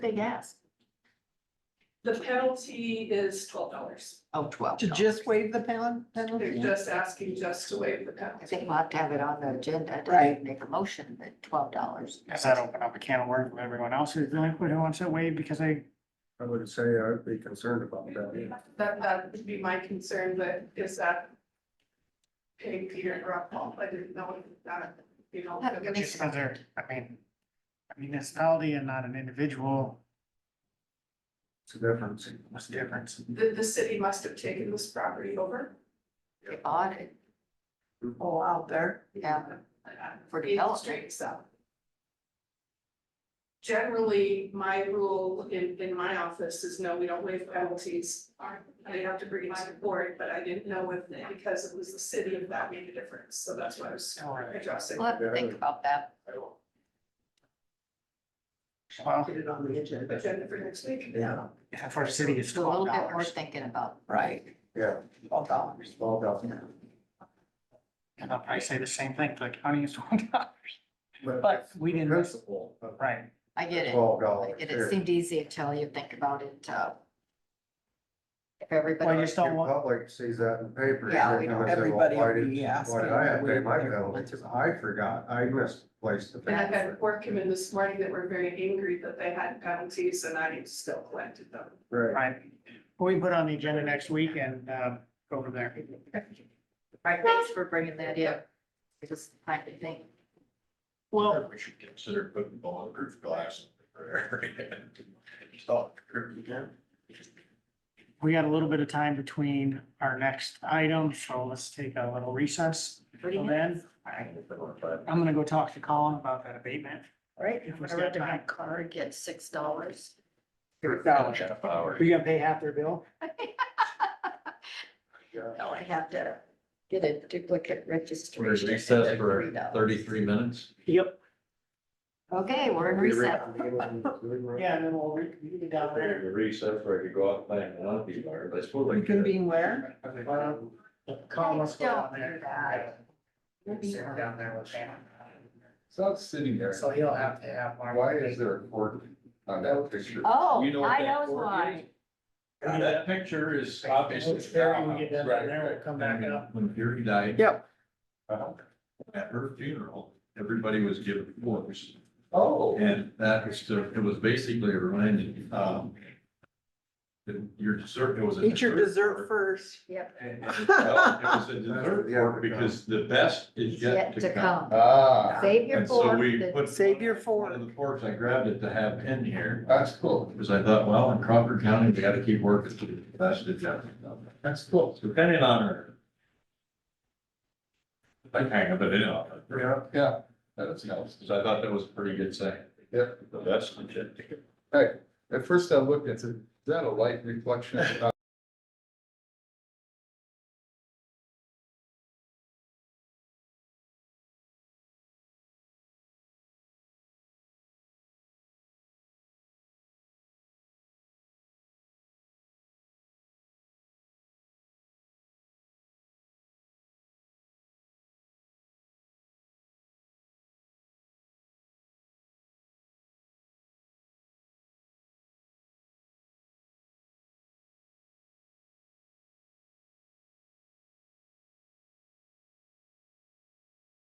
big ask. The penalty is twelve dollars. Oh, twelve. To just waive the pen- They're penalty? just asking just to waive the I penalty. think we'll have to have it on the agenda. to Right. Make a motion at twelve dollars. Does that open up a can of worms with everyone else who's delinquent who wants it waived because they, I would say I'd be concerned about that. That, that would be my concern, but is that paying Peter and Rob Paul? I didn't know that, you know. That would be- because- just other, I mean, a municipality and not an individual, It's a difference. what's the difference? The, the city must have taken this property over. Audit, all out there. Yeah. For Being development. straight, so. Generally, my rule in, in my office is no, we don't waive penalties. They have to bring it to the board, but I didn't know if, because it was the city, if that made a difference, so that's why I was addressing. we'll have to think about that. Well, Get it on the agenda. Agenda for next week. Yeah, if our city is Do A little twelve bit more dollars, thinking about. Right, yeah, twelve dollars. twelve dollars. and I'll probably say the same thing, for the county is one dollar, But but we didn't, principle of right, I get it. twelve I dollars. get it. It seemed easy until you think about it. uh, If well, you everybody, just don't want, Public sees that in the paper. Yeah, they're we gonna don't- say, well, everybody why will did- be Why did asking I have to where pay my their penalties? expenses are. I forgot, I misplaced the And I paper. had work come in this morning that were very angry that they had penalties and I still collected them. Right, right. We put on the agenda next week and, um, go over there. right, thanks for bringing that up. I just kind of think, Well, We should consider putting bulletproof glass in there. Stop. we got a little bit of time between our next item, so let's take a little recess. what do you Till mean? then, I'm gonna go talk to Colin about that abatement. Right, If if we I step rented my back. car and get six dollars. We gotta pay half their bill? yeah. No, I have to get a duplicate registration. recess They're for free though. thirty-three minutes. Yep. Okay, we're in We recess. reconvene in Zoom room. Yeah, and then we'll, re- we can get down there. Recess where I could go out and play in the monkey bar, but I suppose. I You can could- be where? Um, Colin, let's go down Don't do there. that. Sit down there with him. It's not sitting there. So he'll have to have. Mark Why is take- there a court on that picture? Oh, You know what I that knows fork why. is? That picture is obviously. Terry, when we get done down there, we'll come back Right, up. right. When Fury died. Yep. uh, At her funeral, everybody was given forks. Oh. And that was, to- it was basically a reminding, um, that your dessert, it was. a Eat your dessert fork. first. Yep, And- and, uh, It was a dessert Yeah, fork because the best is it's yet to come. Ah, Save your And so fork. we that- put. Save your One of the forks, I grabbed it to have in here, that's cool. because I thought, well, in Crawford County, we gotta keep working to the best of them. That's cool, depending on her. I hang up it in on her. Yeah, yeah, That's nice, because I thought that was a pretty good saying. Yep. The best. of them. at first I looked, and said, is that a light reflection? of the